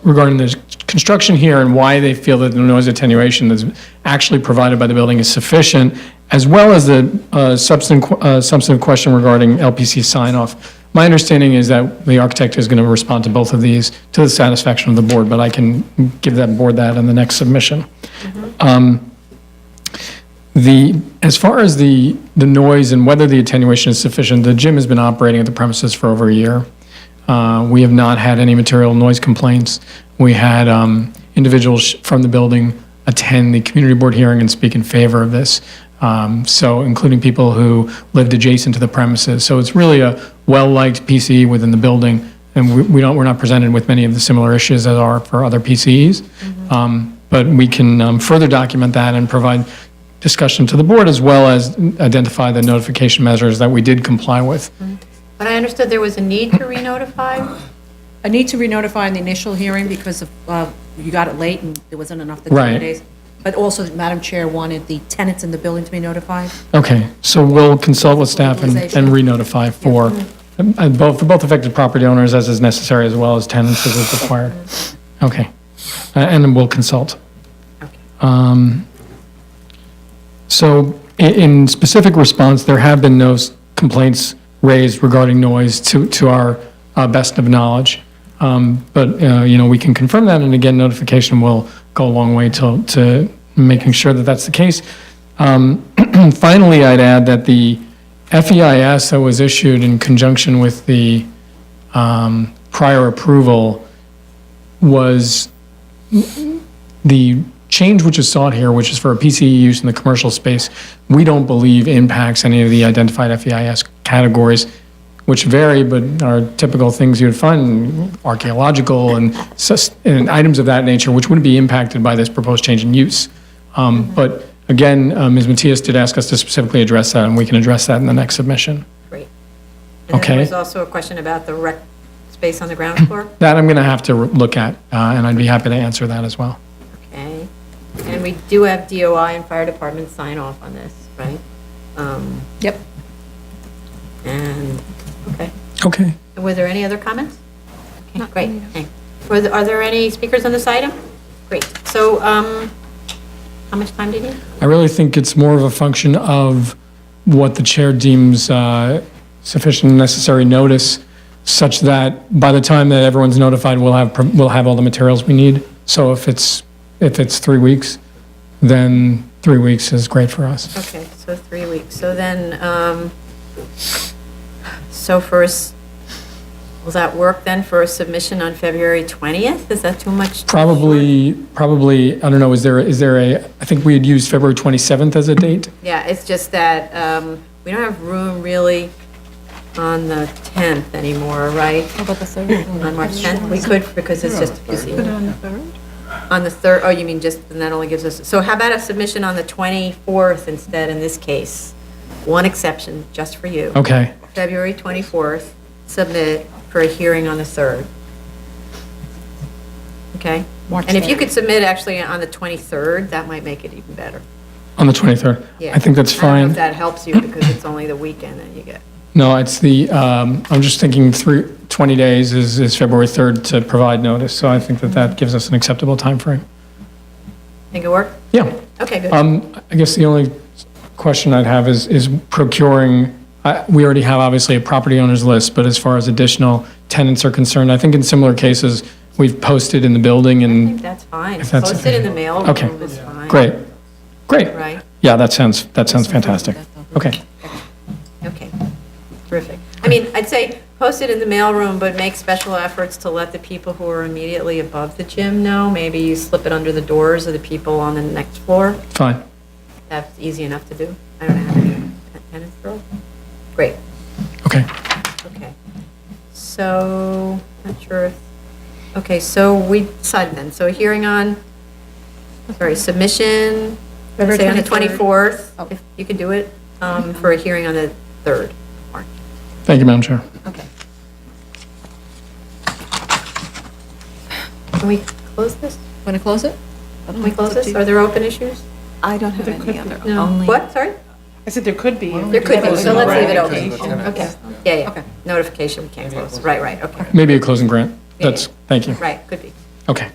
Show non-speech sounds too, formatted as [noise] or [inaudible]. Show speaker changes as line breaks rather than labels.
regarding the construction here and why they feel that the noise attenuation that's actually provided by the building is sufficient, as well as the uh, substantive, uh, substantive question regarding LPC sign-off. My understanding is that the architect is going to respond to both of these to the satisfaction of the board, but I can give that board that in the next submission. Um, The, as far as the, the noise and whether the attenuation is sufficient, the gym has been operating at the premises for over a year. Uh, We have not had any material noise complaints. We had um, individuals sh- from the building attend the community board hearing and speak in favor of this, Um, so including people who lived adjacent to the premises. So it's really a well-liked PCE within the building, and we- we don't, we're not presented with many of the similar issues that are for other PCEs. Um, But we can um, further document that and provide discussion to the board, as well as identify the notification measures that we did comply with.
But I understood there was a need to re-notify?
I need to re-notify in the initial hearing because of, uh, you got it late and there wasn't enough the
Right.
ten days. But also, Madam Chair wanted the tenants in the building to be notified.
Okay, so we'll consult with staff and, and
Organization.
re-notify for, and both, for both affected property owners as is necessary, as well as tenants as is required. Okay, A- and then we'll consult. Um, So i- in specific response, there have been no s- complaints raised regarding noise to, to our uh, best of knowledge. Um, But, uh, you know, we can confirm that, and again, notification will go a long way to, to making sure that that's the case. Um, Finally, I'd add that the FEIS that was issued in conjunction with the um, prior approval was the change which is sought here, which is for a PCE use in the commercial space, we don't believe impacts any of the identified FEIS categories, which vary, but are typical things you'd find, archaeological and sus- and items of that nature, which wouldn't be impacted by this proposed change in use. Um, But again, uh, Ms. Matias did ask us to specifically address that, and we can address that in the next submission.
Great. And then
Okay.
there was also a question about the rec space on the
[clears throat]
ground floor?
That I'm going to have to re- look at, uh, and I'd be happy to answer that as well.
Okay. And we do have DOI and fire department sign off on this, right? Um,
Yep.
And, okay.
Okay.
And Were there any other comments? Okay, great, thanks. Were there- Are there any speakers on this item? Great. So um, how much time do you need?
I really think it's more of a function of what the chair deems uh, sufficient and necessary notice, such that by the time that everyone's notified, we'll have, we'll have all the materials we need. So if it's, if it's three weeks, then three weeks is great for us.
Okay, so three weeks. So then, um, so first, will that work then for a submission on February 20th? Is that too much?
Probably, probably, I don't know, is there, is there a, I think we had used February 27th as a date?
Yeah, it's just that um, we don't have room really on the 10th anymore, right?
How about the third?
On March 10th? We could, because it's just busy. on the 3rd? On the 3rd, oh, you mean just, and that only gives us, so how about a submission on the 24th instead in this case? One exception, just for you.
Okay,
February 24th, submit for a hearing on the 3rd. Okay?
March
And if you
3rd.
could submit actually on the 23rd, that might make it even better.
on the 23rd.
Yeah.
I think that's
I don't know
fine.
if that helps you because it's only the weekend that you get.
No, it's the, um, I'm just thinking through, 20 days is, is February 3rd to provide notice, so I think that that gives us an acceptable timeframe.
Think it worked?
Yeah.
Okay, good.
Um, I guess the only question I'd have is, is procuring, I- we already have obviously a property owner's list, but as far as additional tenants are concerned, I think in similar cases, we've posted in the building
I think
and,
that's fine.
If that's-
Post it in the mail
Okay.
room is fine.
great, great.
Right?
Yeah, that sounds, that sounds fantastic. Okay,
Okay. Terrific. I mean, I'd say post it in the mail room, but make special efforts to let the people who are immediately above the gym know. Maybe you slip it under the doors of the people on the next floor.
fine.
That's easy enough to do. I don't have any tennis girl. Great,
Okay,
okay. So, not sure if, okay, so we decided then, so a hearing on, sorry, submission,
February
say on the
23rd.
24th, if you can do it, um, for a hearing on the 3rd. March.
thank you, Madam Chair.
Okay. Can we close this?
Want to close it?
Can
Mm-hmm.
we close this? Are there open issues?
I don't have any other,
No.
only.
What, sorry?
I said there could be.
There could be, so let's leave it open.
Notification.
Okay, yeah, yeah.
Okay.
Notification, we can't close, right, right, okay.
Maybe a closing grant. That's, thank you.
Right, could be.
Okay.